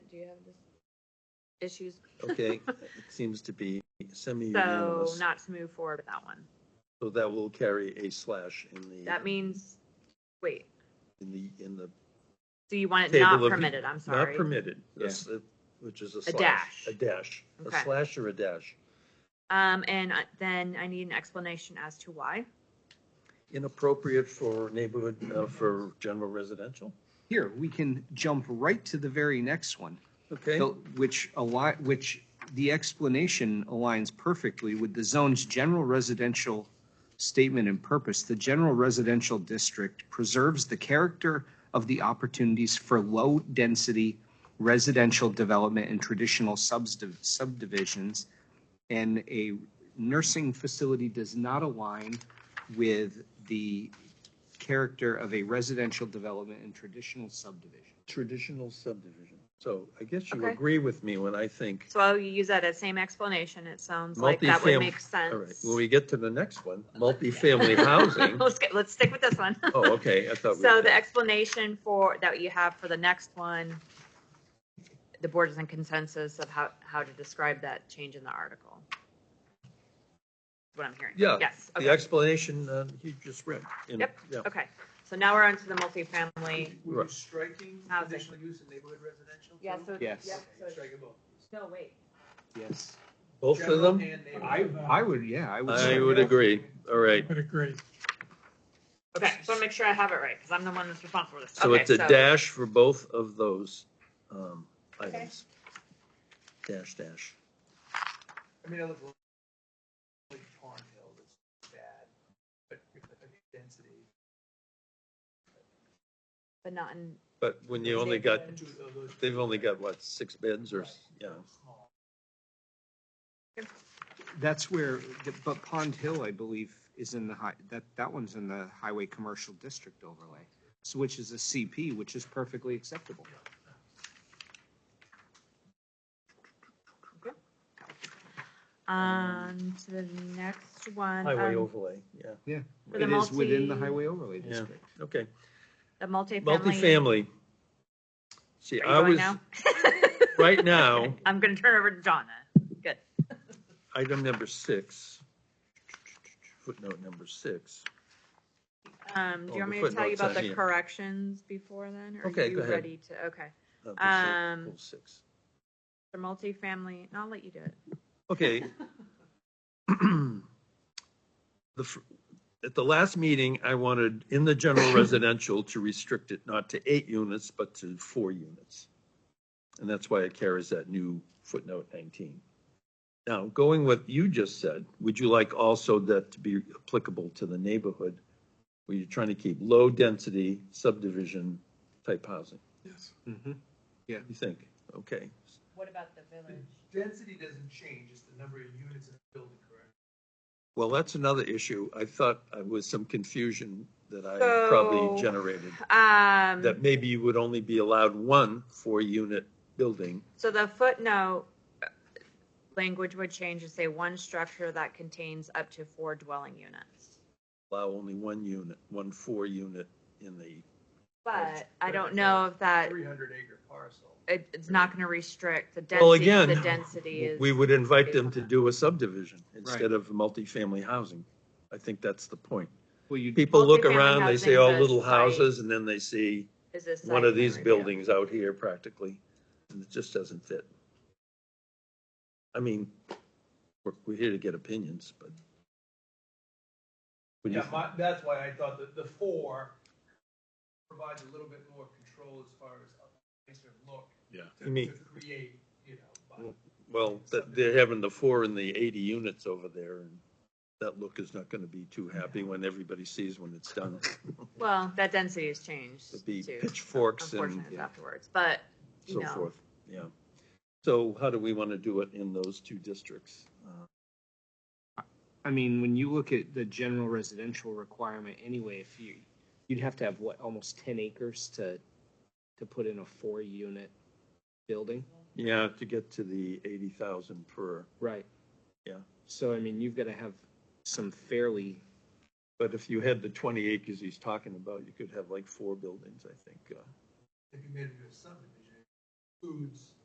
do you have this issues? Okay, it seems to be So semi-unanimous. not to move forward with that one. So that will carry a slash in That the, means, wait, in the, in the, so you want it Table not of- permitted, I'm not sorry. permitted, a Yeah. s- uh, which is a slash. dash. A dash, a Okay. slash or a dash. Um, and I- then I need an explanation as to why. Inappropriate for neighborhood, uh, for general residential, Here, we can jump right to the very next one, okay? the- which align, which the explanation aligns perfectly with the zone's general residential statement and purpose. The general residential district preserves the character of the opportunities for low-density residential development and traditional subsdiv- subdivisions. And a nursing facility does not align with the character of a residential development and traditional subdivision. Traditional subdivision. So I guess you Okay. agree with me when I think, So you use that as same explanation. It sounds like that Multifam- would make all right, sense. when we get to the next one, multifamily housing. Let's get, let's stick with this one. Oh, okay, I thought. we So were the done. explanation for, that you have for the next one, the board is in consensus of how, how to describe that change in the article. What I'm hearing. Yeah, Yes, The okay, explanation uh, you just read. in- Yep. yeah. okay. So now we're on to the multifamily. Right. striking Housing. use in neighborhood residential? Yeah, too? so. Yes. yep, so it's- Strike them both. No, wait. Yes. Both of them? General and I, uh, neighborhood. I would, yeah, I would. I say would that. agree. All right. Would agree. Okay, so I make sure I have it right, because I'm the one that's responsible for this. So Okay, it's a dash for both of those um, Okay. items. Dash, dash. I mean, I live like Tarn Hill, it's bad, but if the density, But not in, But when you only got, two of those. they've only got what, six beds or, yeah. Small. That's where, the- but Pond Hill, I believe, is in the high, that, that one's in the highway commercial district overlay. So which is a CP, which is perfectly acceptable. um, to the next one. Highway um, overlay, yeah, For the It is within the multi- highway overlay Yeah. district. okay. The multifamily. Multifamily. See, Are you I going was, now? right now, I'm gonna turn it over to John then. item number six, footnote number six. Um, do Oh, you want me the to tell you footnote's about on the here. corrections before then? or are Okay, you go ahead. Ready to, okay. of the Um, circle Six. The multifamily, no, I'll let you do it. Okay. The, fir- at the last meeting, I wanted in the general residential to restrict it not to eight units, but to four units. And that's why it carries that new footnote nineteen. Now, going with you just said, would you like also that to be applicable to the neighborhood? Where you're trying to keep low density subdivision type housing, Yes. Mhm. you think? Okay, What about the village? Density doesn't change, it's the number of units in the building, correct? Well, that's another issue. I thought I was some confusion that I probably So- generated, that Um, maybe you would only be allowed one four-unit building. so the footnote uh, language would change to say one structure that contains up to four dwelling units. Allow only one unit, one four-unit in the, But I don't Right. know if that, Three hundred acre parcel. it, it's not gonna restrict the Well, density, the again, density is. we would invite them to do a subdivision instead Right. of multifamily housing. I think that's the point. Well, you, People look Multifamily around, they say, housing oh, does little site- houses, and then they see is a one site of these review. buildings out here practically, and it just doesn't fit. I mean, we're, we're here to get opinions, but. What do you Yeah, think? my, that's why I thought that the four provides a little bit more control as far as a nicer look. Yeah. to- You mean- To create, you know, Well, Well, that, they're having the four and the eighty units over there, and that look is not gonna be too happy when everybody sees when it's done. Well, that density has changed It'd be too. pitchforks and Unfortunate afterwards, but, you so know. forth, yeah. So how do we wanna do it in those two districts? Uh, I mean, when you look at the general residential requirement anyway, if you, you'd have to have what, almost ten acres to, to put in a four-unit building? Yeah, to get to the eighty thousand per. Right. Yeah. So I mean, you've got to have some fairly, But if you had the twenty acres he's talking about, you could have like four buildings, I think. uh, if you made it into a subdivision, includes